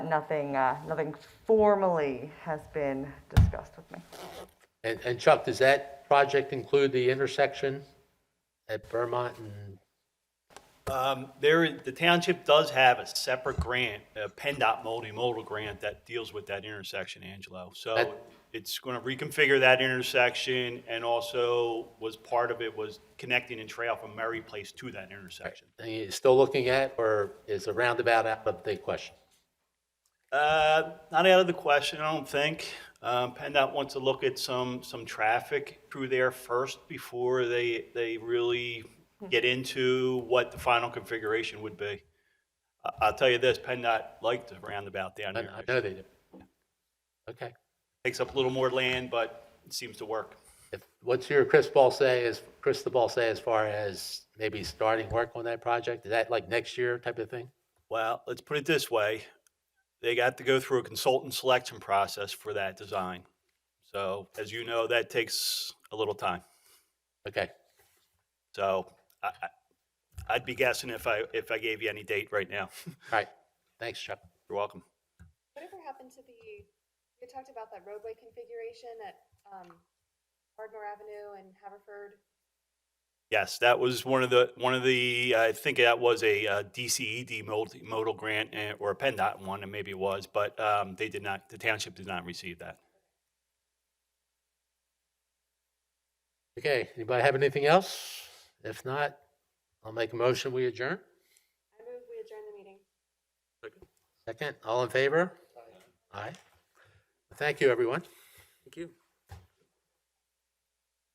nothing, uh, nothing formally has been discussed with me. And, and Chuck, does that project include the intersection at Vermont and, Um, There, the township does have a separate grant, a PennDOT multimodal grant that deals with that intersection, Angelo. So That- it's going to reconfigure that intersection, and also was part of it was connecting a trail from Murray Place to that intersection. are you still looking at, or is the roundabout out of the question? Uh, Not out of the question, I don't think. Um, PennDOT wants to look at some, some traffic through there first before they, they really get into what the final configuration would be. I- I'll tell you this, PennDOT liked the roundabout down I here. I It know they do. Okay. Takes up a little more land, but it seems to work. If, what's your Chris Ball say, as, Chris the Ball say as far as maybe starting work on that project? Is that like next year type of thing? Well, let's put it this way. They got to go through a consultant selection process for that design. So as you know, that takes a little time. Okay, So I, I- I'd be guessing if I, if I gave you any date right now. all right. Thanks, Chuck. You're welcome. Whatever happened to the, we talked about that roadway configuration at um, Ardmore Avenue and Haverford. Yes, that was one of the, one of the, I think that was a uh, DCED multi- modal grant eh, or a PennDOT one, and maybe it was, but um, they did not, the township did not receive that. Okay, anybody have anything else? If not, I'll make a motion, we adjourn. I move we adjourn the meeting. Second, all in favor? Aye. Thank you, everyone. Thank you.